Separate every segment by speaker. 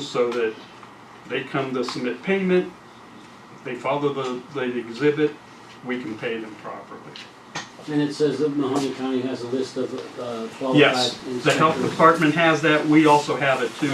Speaker 1: so that they come to submit payment, if they follow the, the exhibit, we can pay them properly.
Speaker 2: And it says that Mahoney County has a list of uh, qualified
Speaker 1: Yes,
Speaker 2: inspectors.
Speaker 1: the health department has that, we also have it too,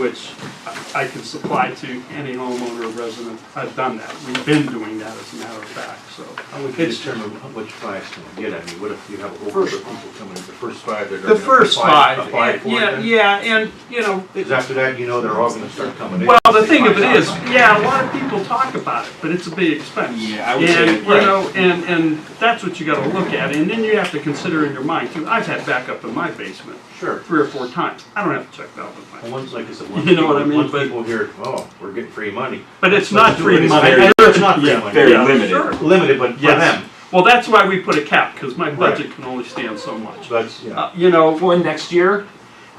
Speaker 1: which I- I can supply to any homeowner or resident. I've done that, we've been doing that as a matter of fact, so.
Speaker 3: How would you
Speaker 1: It's-
Speaker 3: determine how much five's gonna get? I mean, what if you have a whole group
Speaker 1: First-
Speaker 3: of people coming in, the first five that are
Speaker 1: The
Speaker 3: gonna
Speaker 1: first
Speaker 3: apply-
Speaker 1: five,
Speaker 3: Apply for
Speaker 1: yeah,
Speaker 3: it
Speaker 1: yeah, and, you know, it-
Speaker 3: Because after that, you know they're all gonna start coming in.
Speaker 1: well, the thing of it
Speaker 3: Five
Speaker 1: is,
Speaker 3: thousand.
Speaker 1: yeah, a lot of people talk about it, but it's a big expense.
Speaker 4: Yeah, I would say-
Speaker 1: And, you know, and, and that's what you gotta look at, and then you have to consider in your mind, too, I've had backup in my basement
Speaker 3: Sure.
Speaker 1: three or four times, I don't have to check valve in
Speaker 3: Well,
Speaker 1: mine.
Speaker 3: Once, like I said, once
Speaker 1: You know what I
Speaker 3: people,
Speaker 1: mean,
Speaker 3: once
Speaker 1: but-
Speaker 3: people hear, oh, we're getting free money.
Speaker 1: But it's not free
Speaker 3: It's
Speaker 1: money.
Speaker 3: very- It's not free
Speaker 1: Yeah,
Speaker 3: money.
Speaker 4: very
Speaker 1: yeah,
Speaker 4: limited.
Speaker 1: sure.
Speaker 3: Limited, but for
Speaker 1: Yes.
Speaker 3: them.
Speaker 1: Well, that's why we put a cap, because my
Speaker 3: Right.
Speaker 1: budget can only stand so much.
Speaker 3: So that's, yeah.
Speaker 1: Uh, You know,
Speaker 4: Well, and next year,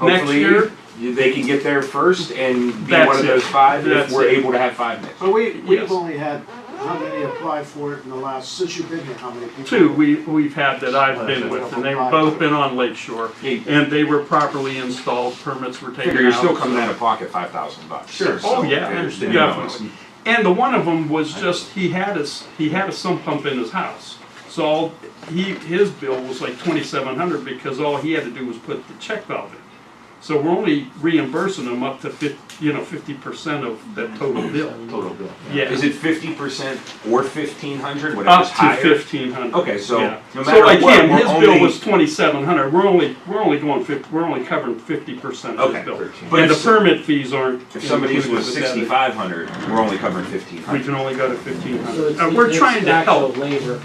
Speaker 1: Next
Speaker 4: hopefully,
Speaker 1: year?
Speaker 4: you- they can get there first and be
Speaker 1: That's
Speaker 4: one of
Speaker 1: it.
Speaker 4: those five
Speaker 1: That's
Speaker 4: if we're
Speaker 1: it. Oh,
Speaker 4: able to have five next.
Speaker 5: But we,
Speaker 1: Yes.
Speaker 5: we've only had, how many apply for it in the last, since you've been here, how many people?
Speaker 1: two we, we've had that I've been with, and they've both been on Lake Shore.
Speaker 4: year.
Speaker 1: And they were properly installed, permits were taken
Speaker 4: Figure
Speaker 1: out.
Speaker 4: you're still coming out of pocket five thousand bucks.
Speaker 3: Sure.
Speaker 1: Oh, yeah,
Speaker 3: I understand.
Speaker 1: yeah.
Speaker 4: You know, it's-
Speaker 1: And the one of them was just, he had his, he had a sump pump in his house. So all, he, his bill was like twenty-seven hundred because all he had to do was put the check valve in. So we're only reimbursing him up to fif, you know, fifty percent of that total bill.
Speaker 3: Total bill.
Speaker 1: Yeah,
Speaker 4: Is it fifty percent or fifteen hundred, whatever's
Speaker 1: up to
Speaker 4: higher?
Speaker 1: fifteen hundred.
Speaker 4: Okay, so no matter
Speaker 1: So
Speaker 4: what,
Speaker 1: again,
Speaker 4: we're
Speaker 1: his bill
Speaker 4: only-
Speaker 1: was twenty-seven hundred. We're only, we're only going fif, we're only covering fifty percent of his
Speaker 4: Okay,
Speaker 1: bill.
Speaker 4: but
Speaker 1: And the
Speaker 4: if-
Speaker 1: permit fees aren't
Speaker 4: If somebody's
Speaker 1: included
Speaker 4: was
Speaker 1: with that.
Speaker 4: sixty-five hundred, we're only covering fifteen
Speaker 1: We
Speaker 4: hundred.
Speaker 1: can only go to fifteen
Speaker 2: So
Speaker 1: hundred.
Speaker 2: it's-
Speaker 1: Uh, we're
Speaker 2: it's
Speaker 1: trying to
Speaker 2: actual
Speaker 1: help.
Speaker 2: labor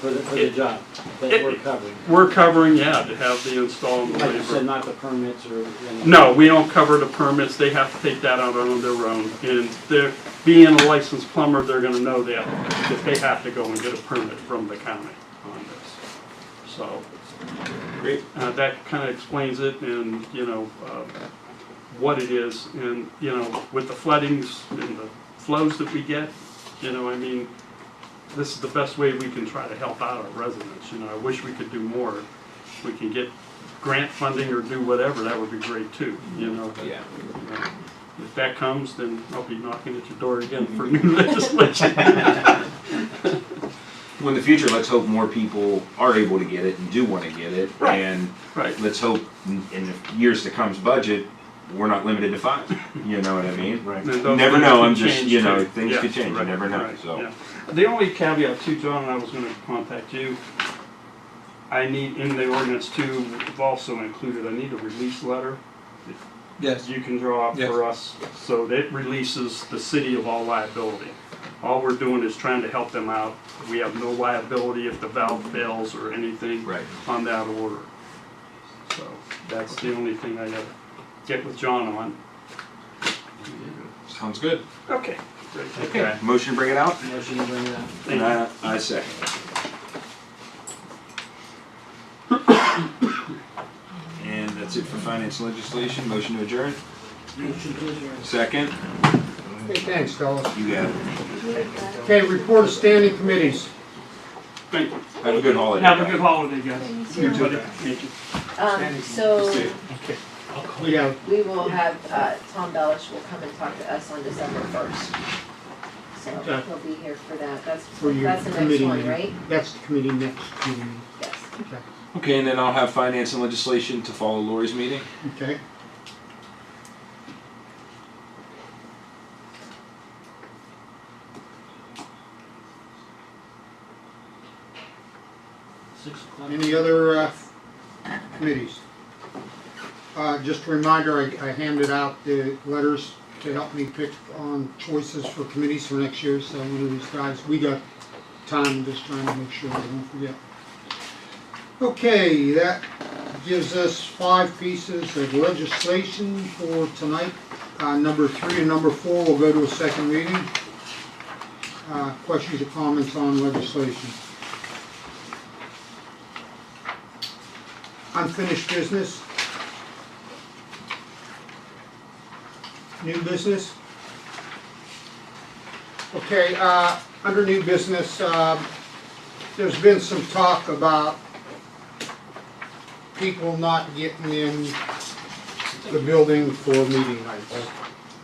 Speaker 2: for the, for the
Speaker 1: It-
Speaker 2: job
Speaker 1: it-
Speaker 2: that we're covering.
Speaker 1: We're covering, yeah, to have the install and the
Speaker 2: Like you said,
Speaker 1: labor.
Speaker 2: not the permits or. anything.
Speaker 1: No, we don't cover the permits, they have to take that out on their own. And they're, being a licensed plumber, they're gonna know that, that they have to go and get a permit from the county on this. So,
Speaker 4: Great.
Speaker 1: uh, that kinda explains it and, you know, uh, what it is. And, you know, with the floodings and the flows that we get, you know, I mean, this is the best way we can try to help out our residents, you know, I wish we could do more. If we can get grant funding or do whatever, that would be great too, you know. but,
Speaker 4: Yeah.
Speaker 1: you know, If that comes, then I'll be knocking at your door again for new legislation.
Speaker 4: Well, in the future, let's hope more people are able to get it and do wanna get it.
Speaker 1: Right.
Speaker 4: And
Speaker 1: Right,
Speaker 4: let's hope in in the years to come's budget, we're not limited to five, you know what I mean?
Speaker 3: Right.
Speaker 1: And
Speaker 4: You
Speaker 1: those
Speaker 4: never
Speaker 1: things
Speaker 4: know,
Speaker 1: could
Speaker 4: I'm just,
Speaker 1: change,
Speaker 4: you know,
Speaker 1: too.
Speaker 4: things
Speaker 1: Yeah,
Speaker 4: could change, you
Speaker 1: right,
Speaker 4: never know,
Speaker 1: right,
Speaker 4: so.
Speaker 1: yeah. The only caveat too, John, and I was gonna contact you, I need, in the ordinance too, we've also included, I need a release letter that
Speaker 6: Yes,
Speaker 1: you can draw up for us, so that releases the city of all liability. All we're doing is trying to help them out, we have no liability if the valve fails or anything
Speaker 4: Right.
Speaker 1: on that order. So, that's the only thing I gotta get with John on.
Speaker 4: Sounds good.
Speaker 1: Okay, great.
Speaker 4: Okay, motion to bring it out?
Speaker 2: Motion to bring it out.
Speaker 1: Thank you.
Speaker 4: I, I second. And that's it for finance and legislation, motion to adjourn,
Speaker 2: Motion to adjourn.
Speaker 4: second,
Speaker 7: Hey, thanks, fellas.
Speaker 4: you got it,
Speaker 7: Okay, report of standing committees.
Speaker 1: Thank you.
Speaker 4: have a good holiday.
Speaker 1: Have a good holiday, guys.
Speaker 7: You too.
Speaker 1: Thank you.
Speaker 8: Um, so
Speaker 7: We have
Speaker 8: we will have, uh, Tom Bellish will come and talk to us on December first. So
Speaker 7: Okay.
Speaker 8: he'll be here for that. That's,
Speaker 7: For your
Speaker 8: that's the next
Speaker 7: committee
Speaker 8: one,
Speaker 7: meeting.
Speaker 8: right?
Speaker 7: That's the committee next meeting.
Speaker 8: Yes.
Speaker 4: Okay, and then I'll have finance and legislation to follow Lori's meeting.
Speaker 7: Okay.
Speaker 2: Six o'clock.
Speaker 7: Any other uh, committees? Uh, Just a reminder, I I handed out the letters to help me pick on choices for committees for next year, so one of these guys, we got time just trying to make sure we don't forget. Okay, that gives us five pieces of legislation for tonight. Uh, Number three and number four will go to a second reading. Uh, Questions or comments on legislation? Unfinished business? New business? Okay, uh, under new business, uh, there's been some talk about people not getting in the building for meeting nights.